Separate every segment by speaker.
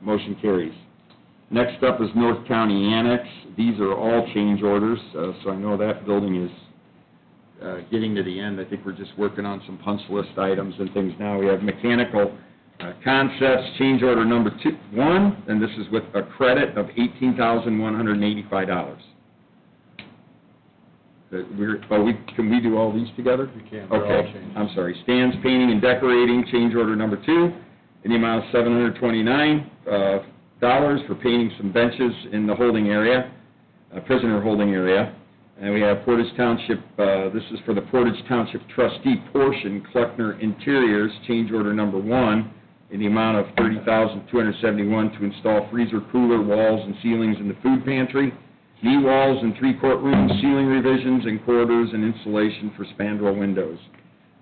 Speaker 1: Motion carries. Next up is North County Annex. These are all change orders, uh, so I know that building is uh, getting to the end. I think we're just working on some punch list items and things now. We have mechanical uh, concepts, change order number two, one, and this is with a credit of eighteen thousand one hundred and eighty-five dollars. That we're, but we, can we do all these together?
Speaker 2: You can, they're all
Speaker 1: Okay,
Speaker 2: changes.
Speaker 1: I'm sorry. Stands, painting, and decorating, change order number two, in the amount of seven hundred twenty-nine, uh, dollars for painting some benches in the holding area, uh, prisoner holding area. And we have Portage Township, uh, this is for the Portage Township trustee portion, Kleckner Interiors, change order number one, in the amount of thirty thousand two hundred seventy-one to install freezer, cooler, walls, and ceilings in the food pantry, knee walls in three courtrooms, ceiling revisions and corridors, and insulation for spandrel windows.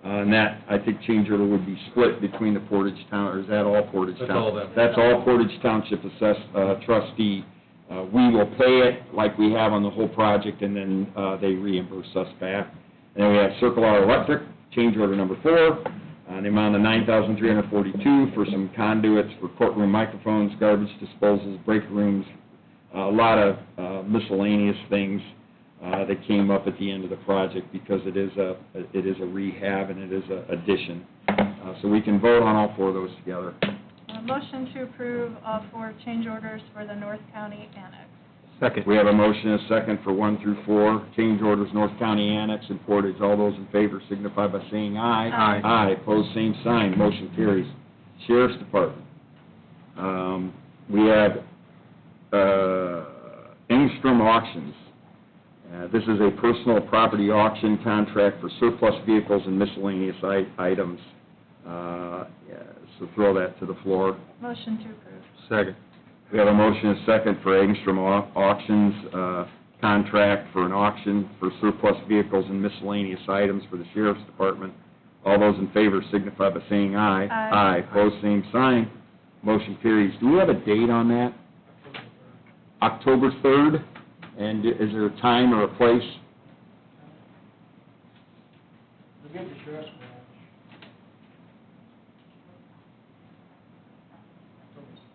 Speaker 1: Uh, And that, I think, change order would be split between the Portage Town, or is that all Portage Township?
Speaker 2: That's all them.
Speaker 1: That's all Portage Township assess, uh, trustee. Uh, We will pay it like we have on the whole project, and then uh, they reimburse us back. And then we have Circle R Electric, change order number four, on the amount of nine thousand three hundred forty-two for some conduits for courtroom microphones, garbage disposals, break rooms, a lot of uh, miscellaneous things uh, that came up at the end of the project because it is a, it is a rehab and it is a addition. Uh, So we can vote on all four of those together.
Speaker 3: Uh, Motion to approve all four change orders for the North County Annex.
Speaker 4: Second.
Speaker 1: We have a motion and a second for one through four, change orders, North County Annex and Portage. All those in favor signify by saying aye.
Speaker 3: Aye.
Speaker 1: Aye, pose same sign, motion carries. Sheriff's Department, Um, we have uh, Engstrom Auctions. Uh, This is a personal property auction contract for surplus vehicles and miscellaneous i- items. Uh, yeah, So throw that to the floor.
Speaker 3: Motion to approve.
Speaker 4: Second.
Speaker 1: We have a motion and a second for Angstrom Au- Auctions uh, contract for an auction for surplus vehicles and miscellaneous items for the sheriff's department. All those in favor signify by saying aye.
Speaker 3: Aye.
Speaker 1: Aye, pose same sign, motion carries. Do we have a date on that? October 3rd? And is there a time or a place?
Speaker 5: We'll get the sheriff's badge.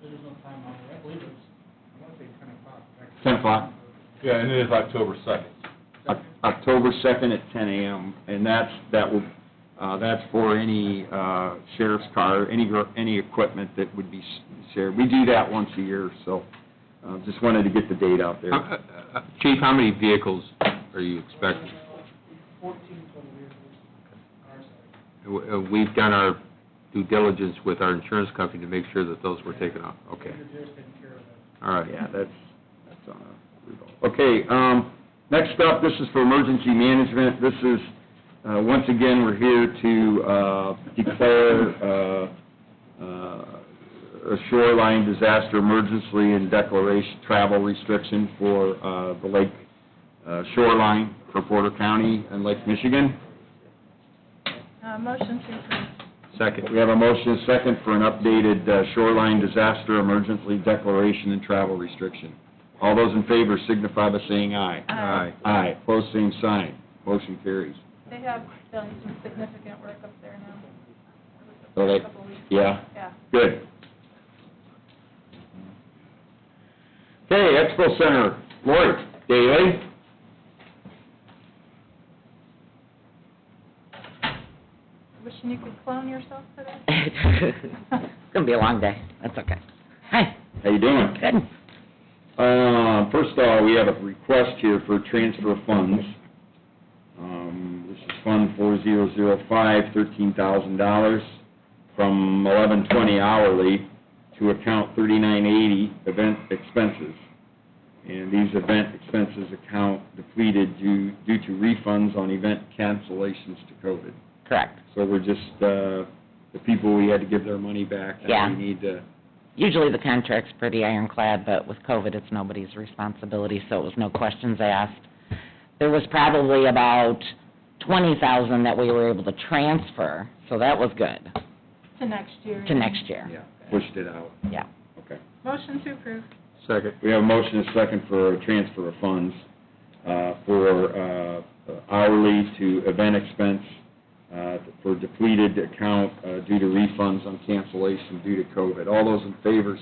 Speaker 5: There is no time on it, I believe it's, I want to say ten o'clock.
Speaker 1: 10 o'clock?
Speaker 2: Yeah, and it is October second.
Speaker 1: Oc- October 2nd at 10 a.m., and that's, that will, uh, that's for any uh, sheriff's car, any, gr- any equipment that would be s- shared. We do that once a year, so uh, just wanted to get the date out there.
Speaker 4: uh, Chief, how many vehicles are you expecting?
Speaker 5: Fourteen total vehicles, our side.
Speaker 4: Uh, uh, We've done our due diligence with our insurance company to make sure that those were taken off. Okay,
Speaker 5: Your deer's taken care of that.
Speaker 4: all right.
Speaker 1: Oh, Yeah, that's, that's on a, okay, um, next up, this is for emergency management. This is, uh, once again, we're here to, uh, declare, uh, uh, a shoreline disaster emergency and declaration, travel restriction for, uh, the lake uh, shoreline for Porter County and Lake Michigan.
Speaker 3: Uh, Motion to approve.
Speaker 4: Second.
Speaker 1: We have a motion and a second for an updated uh, shoreline disaster emergency declaration and travel restriction. All those in favor signify by saying aye.
Speaker 3: Aye.
Speaker 1: Aye, pose same sign, motion carries.
Speaker 3: They have done some significant work up there now.
Speaker 1: So they-
Speaker 3: Couple weeks.
Speaker 1: Yeah,
Speaker 3: Yeah.
Speaker 1: good. Okay, Expo Center, Lori Daly.
Speaker 3: Wishing you could clone yourself today.
Speaker 6: It's gonna be a long day, that's okay. Hi,
Speaker 1: how you doing?
Speaker 6: good.
Speaker 1: Uh, First of all, we have a request here for transfer of funds. Um, This is Fund 4005, $13,000 from 1120 hourly to account 3980, event expenses. And these event expenses account depleted due due to refunds on event cancellations to COVID.
Speaker 6: Correct.
Speaker 1: So we're just, uh, the people, we had to give their money back.
Speaker 6: Yeah.
Speaker 1: And we need to,
Speaker 6: Usually the contract's pretty ironclad, but with COVID, it's nobody's responsibility, so it was no questions asked. There was probably about twenty thousand that we were able to transfer, so that was good,
Speaker 3: To next year.
Speaker 6: to next year.
Speaker 1: yeah, pushed it out.
Speaker 6: Yeah.
Speaker 1: Okay.
Speaker 3: Motion to approve.
Speaker 4: Second.
Speaker 1: We have a motion and a second for a transfer of funds uh, for uh, hourly to event expense uh, for depleted account uh, due to refunds on cancellation due to COVID. All those in favor